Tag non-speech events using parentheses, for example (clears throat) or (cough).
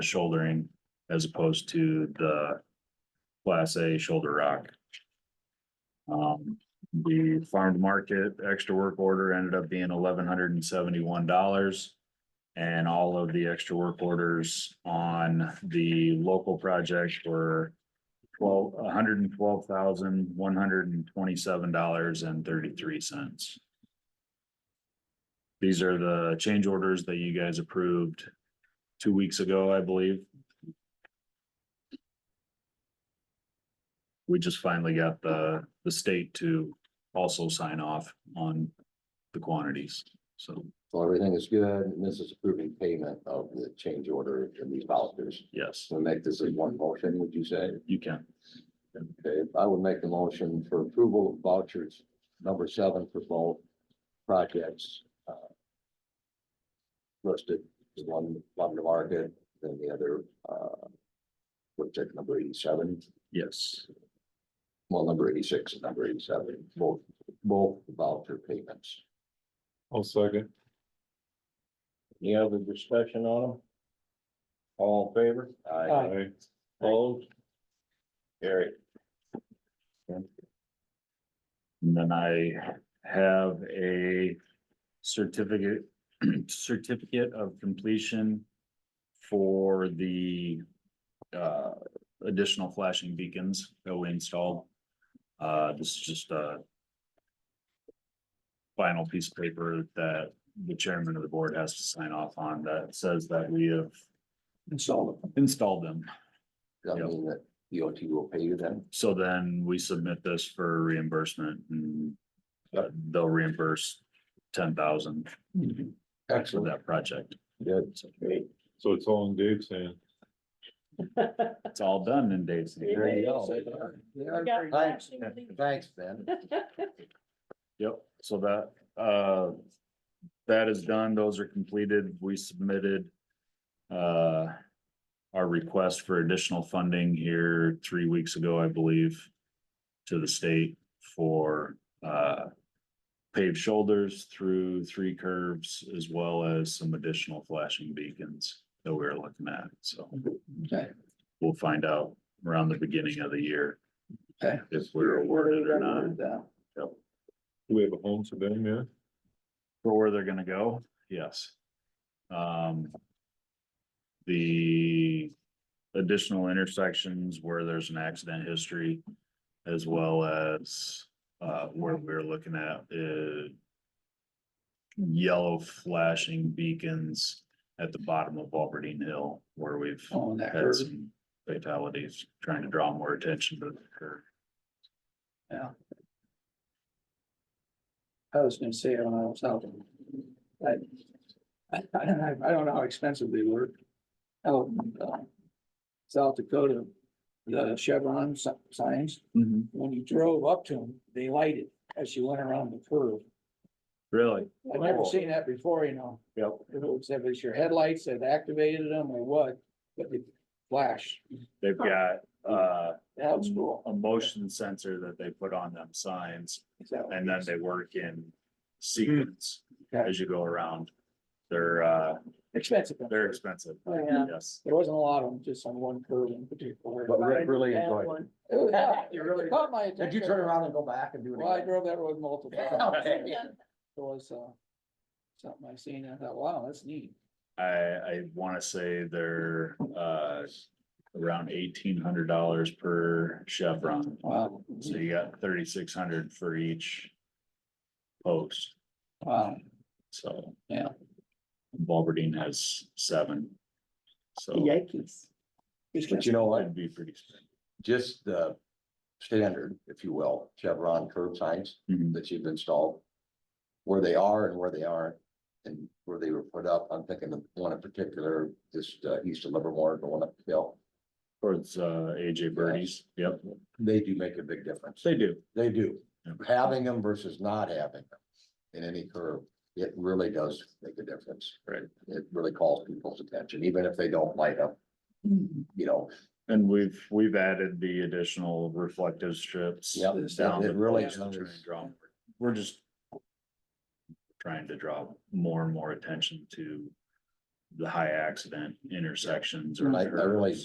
shouldering as opposed to the class A shoulder rock. Um, the farm to market extra work order ended up being eleven hundred and seventy-one dollars. And all of the extra work orders on the local project were twelve, hundred and twelve thousand, one hundred and twenty-seven dollars and thirty-three cents. These are the change orders that you guys approved two weeks ago, I believe. We just finally got the, the state to also sign off on the quantities, so, So everything is good, and this is approving payment of the change order in these vouchers. yes, So make this as one motion, would you say? you can. Okay, I would make the motion for approval of vouchers number seven for both projects. uh, Listed, the one, one to market, then the other, uh, project number eighty-seven, Yes, well, number eighty-six and number eighty-seven, both, both voucher payments. I'll second. Any other discussion on them? All in favor? I Opposed? Carry. and then I have a certificate, (clears throat) certificate of completion for the uh, additional flashing beacons that we installed. Uh, this is just a final piece of paper that the chairman of the board has to sign off on that says that we have install them. installed them. Does Yeah. that mean that E DOT will pay you then? So then we submit this for reimbursement and uh, they'll reimburse ten thousand for Excellent. that project. Good. So Great. So it's all in Dave's hand. It's all done in days. There you go. Say Yeah, got Thanks, flashing lights. thanks, Ben. Yep, so that, uh, that is done, those are completed, we submitted. Uh, our request for additional funding here three weeks ago, I believe. To the state for, uh. Paved shoulders through three curves as well as some additional flashing beacons that we're looking at, so. Okay. We'll find out around the beginning of the year. Okay. If we're awarded or not. Do we have a home for them yet? For where they're gonna go, yes. Um. The additional intersections where there's an accident history. As well as, uh, where we're looking at, uh. Yellow flashing beacons at the bottom of Albertine Hill where we've Oh, On that had curve, some fatalities, trying to draw more attention to the curve. I was gonna say, I don't know, I was out. I, I, I don't know- (laughs) I don't know how expensive they were. Out in, uh, South Dakota, the Chevron si- signs, when you drove up to them, they lighted as you went around the curve. Really? I've never seen that before, you know, Yep. if it was, if it's your headlights that activated them or what, but they flash, They've got, uh, that Mm. was cool. a motion sensor that they put on them signs Exactly. And then they work in sequence Okay. as you go around. They're, uh, Expensive. though. they're expensive. Oh, yeah. Yes. There wasn't a lot of them, just on one curve in particular. But Rick really Bad enjoyed it. one. Oh, yeah, (laughs) You really- it Caught my attention. Did you turn around and go back and do it Well, I again? drove that road multiple times. (laughs) Okay. It was, uh, something I seen, I thought, wow, that's neat. I, I want to say they're, uh, around eighteen hundred dollars per chevron. Wow, So you got thirty-six hundred for each post, wow, so. Yeah. Bulbardine has seven. So Yikes. But you know what, it'd be pretty. expensive. just the standard, if you will, Chevron curb signs Mhm. that you've installed. Where they are and where they aren't, and where they were put up, I'm thinking of one in particular, just uh, east of Livermore, going up the hill. Towards, uh, AJ Birdies. Yep, They do make a big difference, they do. they do, Yeah. having them versus not having them in any curve. It really does make a difference. Right. It really calls people's attention, even if they don't light up, you know, And we've, we've added the additional reflective strips. Yep, down it- the it really poles to try does. and draw more- We're just. Trying to draw more and more attention to the high accident intersections or. I, I realize